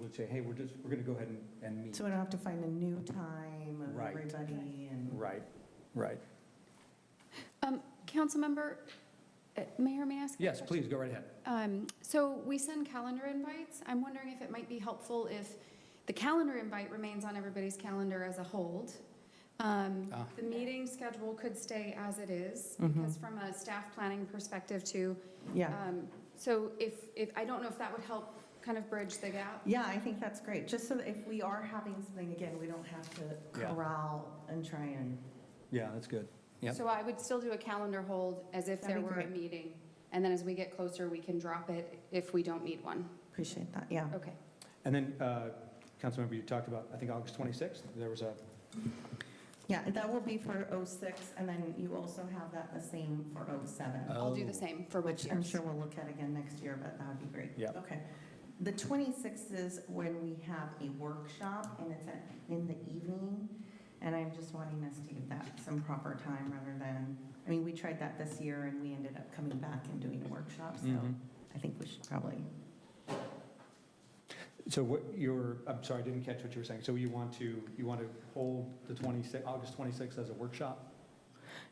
would say, hey, we're just, we're going to go ahead and, and meet. So we don't have to find a new time of Right. everybody and. Right, right. Um, Councilmember, uh, Mayor, may I ask? a Yes, question? please, go right ahead. Um, So we send calendar invites. I'm wondering if it might be helpful if the calendar invite remains on everybody's calendar as a hold. Um, Ah. The meeting schedule could stay as it is, Mhm. Mm-hmm. because from a staff planning perspective too. Yeah, um, So if, if, I don't know if that would help kind of bridge the gap. yeah, I think that's great, just so that if we are having something again, we don't have to Yeah. corral and try and, Yeah, that's good. Yep. So I would still do a calendar hold as if there That'd be were a great. meeting. And then as we get closer, we can drop it if we don't need one. appreciate that, yeah. Okay. And then, uh, Councilmember, you talked about, I think, August 26th, there was a, Yeah, that will be for 06, and then you also have that the same for 07, I'll do Oh. the same for both which I'm years. sure we'll look at again next year, but that would be great. Yep. Okay. The 26th is when we have a workshop, and it's at- in the evening, and I'm just wanting us to give that some proper time rather than, I mean, we tried that this year, and we ended up coming back and doing a workshop, so Mhm. I think we should probably, so what you're, I'm sorry, I didn't catch what you were saying. So you want to, you want to hold the 26th, August 26th as a workshop?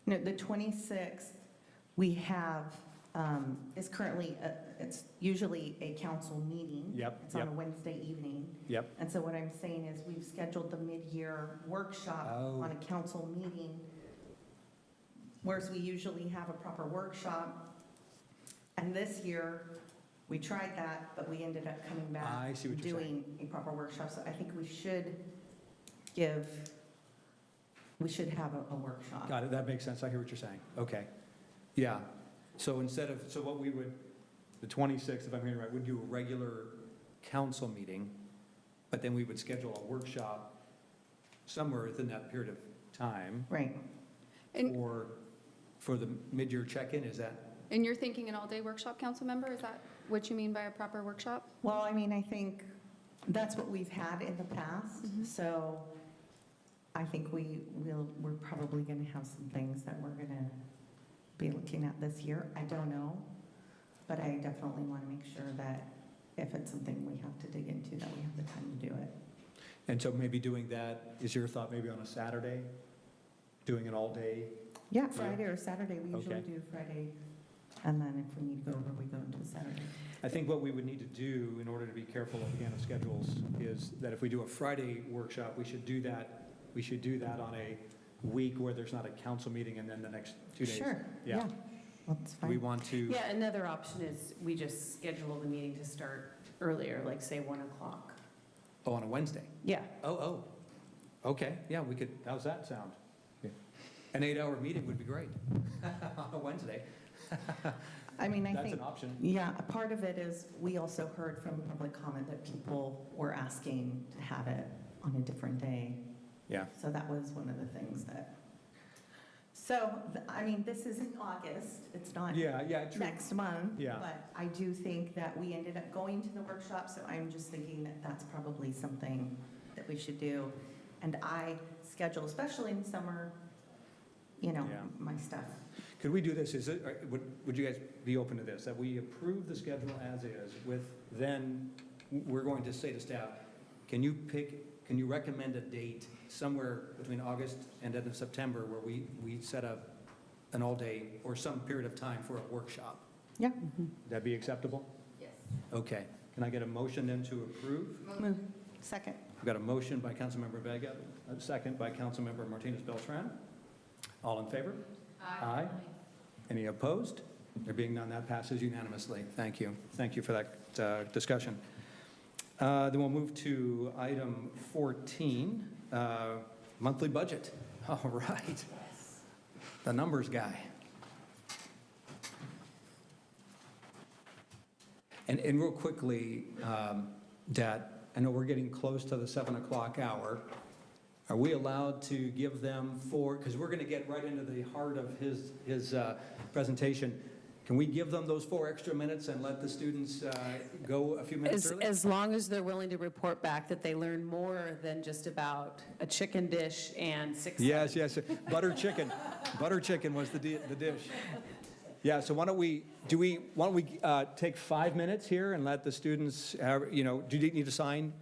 no, the 26th, we have, um, is currently, a- it's usually a council meeting. Yep, It's on yep, a Wednesday evening. yep. And so what I'm saying is we've scheduled the mid-year workshop Oh. on a council meeting, whereas we usually have a proper workshop. And this year, we tried that, but we ended up coming back I see what you're saying. doing a proper workshop. So I think we should give, we should have a a workshop. Got it, that makes sense, I hear what you're saying. Okay, yeah. So instead of, so what we would, the 26th, if I'm hearing right, would do a regular council meeting, but then we would schedule a workshop somewhere within that period of time Right. And- for, for the mid-year check-in, is that? And you're thinking an all-day workshop, council member? Is that what you mean by a proper workshop? Well, I mean, I think that's what we've had in the past, Mhm. so I think we will, we're probably going to have some things that we're going to be looking at this year. I don't know, but I definitely want to make sure that if it's something we have to dig into, that we have the time to do it. And so maybe doing that, is your thought maybe on a Saturday? Doing an all-day? Yeah, Friday or Saturday, we usually Okay. do Friday, and then if we need to go over, we go into Saturday. I think what we would need to do in order to be careful again of schedules is that if we do a Friday workshop, we should do that, we should do that on a week where there's not a council meeting and then the next two days. Sure, Yeah. yeah, that's Do we fine. want to, Yeah, another option is we just schedule the meeting to start earlier, like say 1 o'clock. oh, on a Wednesday? Yeah. Oh, oh, okay, yeah, we could, how's that sound? An eight-hour meeting would be great on a Wednesday. I mean, I think. That's an option. Yeah, a part of it is, we also heard from public comment that people were asking to have it on a different day. Yeah. So that was one of the things that, so, th- I mean, this is in August, it's not Yeah, yeah, true. next month. Yeah. But I do think that we ended up going to the workshop, so I'm just thinking that that's probably something that we should do. And I schedule, especially in summer, you know, Yeah. my stuff. Could we do this, is it, or would, would you guys be open to this, that we approve the schedule as is with, then we're going to say to staff, can you pick, can you recommend a date somewhere between August and end of September where we, we set up an all-day or some period of time for a workshop? Yeah. That be acceptable? Yes. Okay, can I get a motion then to approve? Move. Second. I've got a motion by Councilmember Vega, a second by Councilmember Martinez Beltran. All in favor? Aye. Any opposed? There being none, that passes unanimously. Thank you. Thank you for that uh, discussion. Uh, Then we'll move to item 14, uh, monthly budget. All right. The numbers guy. And, and real quickly, um, that, I know we're getting close to the 7 o'clock hour. Are we allowed to give them four, because we're going to get right into the heart of his, his uh, presentation. Can we give them those four extra minutes and let the students uh, go a few minutes As, early? as long as they're willing to report back that they learn more than just about a chicken dish and six. Yes, yes, butter chicken. Butter chicken was the di- the dish. Yeah, so why don't we, do we, why don't we uh, take five minutes here and let the students, uh, you know, do you need to sign